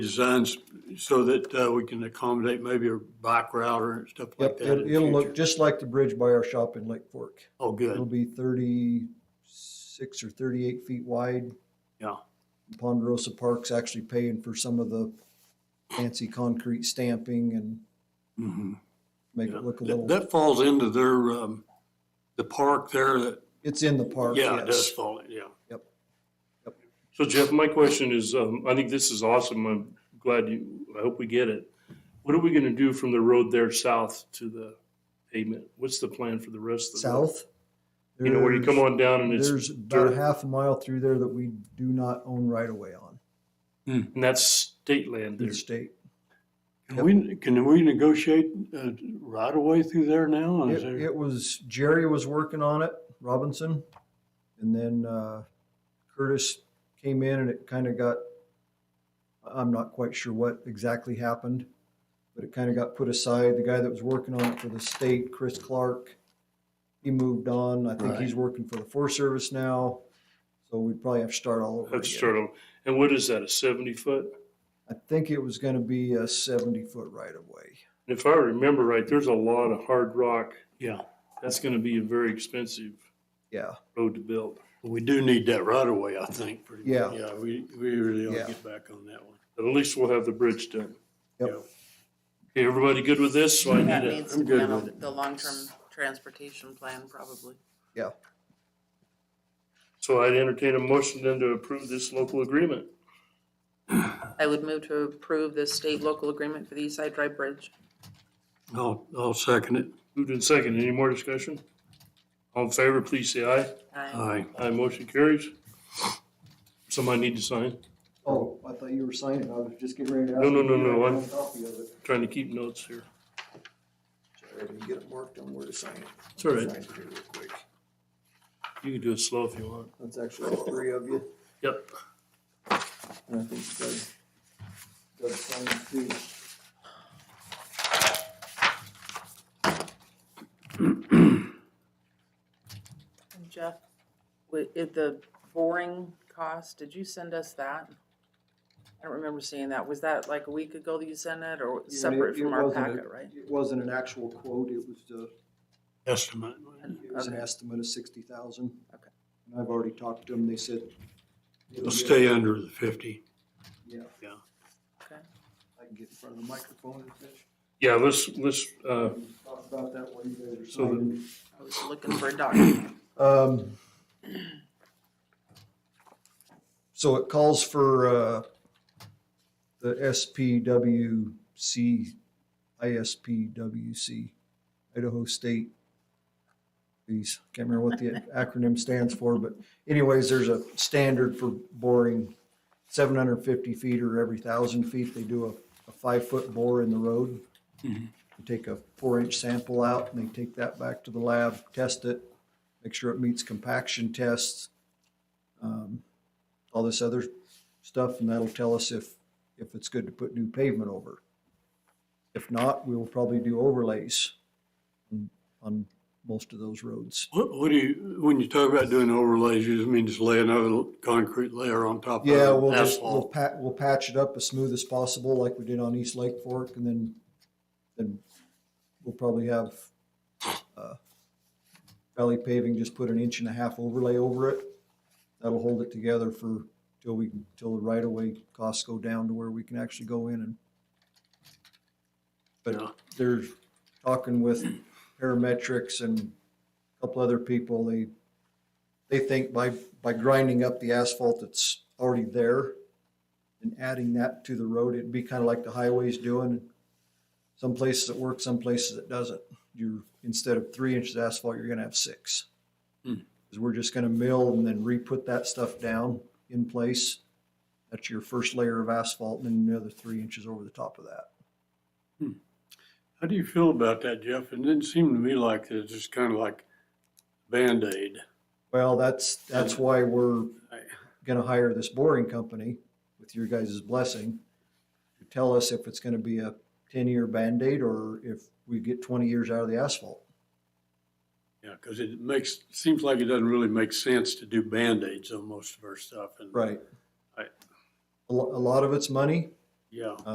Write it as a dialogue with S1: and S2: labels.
S1: designs so that uh, we can accommodate maybe a bike router and stuff like
S2: Yep,
S1: that in
S2: it-
S1: the
S2: it'll look
S1: future?
S2: just like the bridge by our shop in Lake Fork.
S1: Oh,
S2: It'll
S1: good.
S2: be thirty-six or thirty-eight feet wide.
S1: Yeah.
S2: Ponderosa Park's actually paying for some of the fancy concrete stamping and
S1: Mhm.
S2: make
S1: Yeah.
S2: it look a
S1: That-
S2: little,
S1: That falls into their, um, the park there that,
S2: it's in the park,
S1: yeah, it does
S2: yes.
S1: fall, yeah.
S2: Yep. Yep.
S3: So Jeff, my question is, um, I think this is awesome. I'm glad you, I hope we get it. What are we gonna do from the road there south to the pavement? What's the plan for the rest of the? road?
S2: South.
S3: You know, where you come
S2: there's-
S3: on down and it's,
S2: There's about
S3: dirt.
S2: a half a mile through there that we do not own right away on
S3: and that's state land
S2: in
S3: there.
S2: the state.
S1: Can we, can we negotiate uh, right away through there now? Is
S2: It,
S1: there-
S2: it was, Jerry was working on it, Robinson. And then, uh, Curtis came in and it kind of got, I'm not quite sure what exactly happened, but it kind of got put aside. The guy that was working on it for the state, Chris Clark, he moved on. I think
S1: Right.
S2: he's working for the Forest Service now. So we'd probably have to start all over
S3: That's
S2: again.
S3: sort of, and what is that, a seventy foot?
S2: I think it was gonna be a seventy foot right of way.
S3: And if I remember right, there's a lot of hard rock.
S1: Yeah,
S3: That's gonna be a very expensive
S2: Yeah,
S3: road to build.
S1: we do need that right away, I think. pretty much.
S2: Yeah.
S1: Yeah, we, we really ought
S2: Yeah.
S1: to get back on that one.
S3: But at least we'll have the bridge done.
S2: Yep.
S3: Yeah. Okay, everybody good with this? So I
S4: That
S3: need a.
S4: needs
S1: I'm
S4: to be
S1: good
S4: on
S1: with
S4: the- the long-term transportation plan, probably.
S3: So I'd entertain a motion then to approve this local agreement.
S4: I would move to approve the state-local agreement for the East Side Drive Bridge.
S1: I'll, I'll second it.
S3: Moved in second. Any more discussion? All in favor, please say aye.
S4: I
S1: Aye.
S3: Aye, motion carries. Somebody need to sign.
S2: Oh, I thought you were signing. I was just getting ready to ask.
S3: No, no,
S2: if
S3: no,
S2: you
S3: no,
S2: had
S3: I'm-
S2: a copy of it.
S3: Trying to keep notes here.
S2: Sorry, I didn't get it marked on where to sign it.
S3: It's all right.
S2: Sign it here real quick.
S3: You can do it slow if you want.
S2: That's actually all three of you,
S3: Yep.
S2: and I think Doug, Doug signed it too.
S4: Jeff, wi- if the boring cost, did you send us that? I don't remember seeing that. Was that like a week ago that you sent it or
S2: Yeah,
S4: separate
S2: it- it
S4: from our
S2: wasn't a-
S4: packet, right?
S2: It wasn't an actual quote, it was, uh,
S1: Estimate.
S2: it was an
S4: Okay.
S2: estimate of sixty thousand.
S4: Okay.
S2: And I've already talked to them, they said.
S1: It'll stay under the fifty.
S2: Yeah,
S4: Okay.
S2: I can get in front of the microphone and finish.
S3: Yeah, let's, let's, uh,
S2: Talk about that while you guys are
S3: So the-
S2: signing.
S4: I was looking for a document.
S2: Um, so it calls for, uh, the SPWC, ISPWC, Idaho State. These, can't remember what the acronym stands for, but anyways, there's a standard for boring seven hundred and fifty feet or every thousand feet, they do a, a five-foot bore in the road.
S1: Mhm.
S2: You Take a four-inch sample out and they take that back to the lab, test it, make sure it meets compaction tests, um, all this other stuff, and that'll tell us if, if it's good to put new pavement over. If not, we will probably do overlays on, on most of those roads.
S1: What, what do you, when you talk about doing overlays, you just mean just lay another concrete layer on top of
S2: Yeah, we'll just, we'll
S1: asphalt?
S2: pat, we'll patch it up as smooth as possible like we did on East Lake Fork, and then, then we'll probably have, uh, valley paving, just put an inch and a half overlay over it. That'll hold it together for, till we, till the right of way costs go down to where we can actually go in and.
S1: Yeah.
S2: But they're talking with parametrics and a couple other people, they, they think by, by grinding up the asphalt that's already there and adding that to the road, it'd be kind of like the highways doing. Some places it works, some places it doesn't. You're, instead of three inches of asphalt, you're gonna have six.
S1: Hmm.
S2: Cause we're just gonna mill and then re-put that stuff down in place. That's your first layer of asphalt and then another three inches over the top of that.
S1: How do you feel about that, Jeff? It didn't seem to me like it's just kind of like Band-Aid.
S2: Well, that's, that's why we're
S1: I-
S2: gonna hire this boring company with your guys' blessing to tell us if it's gonna be a ten-year Band-Aid or if we get twenty years out of the asphalt.
S1: Yeah, because it makes, seems like it doesn't really make sense to do Band-Aids on most of our stuff. and-
S2: Right.
S1: Right.
S2: A lo- a lot of it's money, Yeah.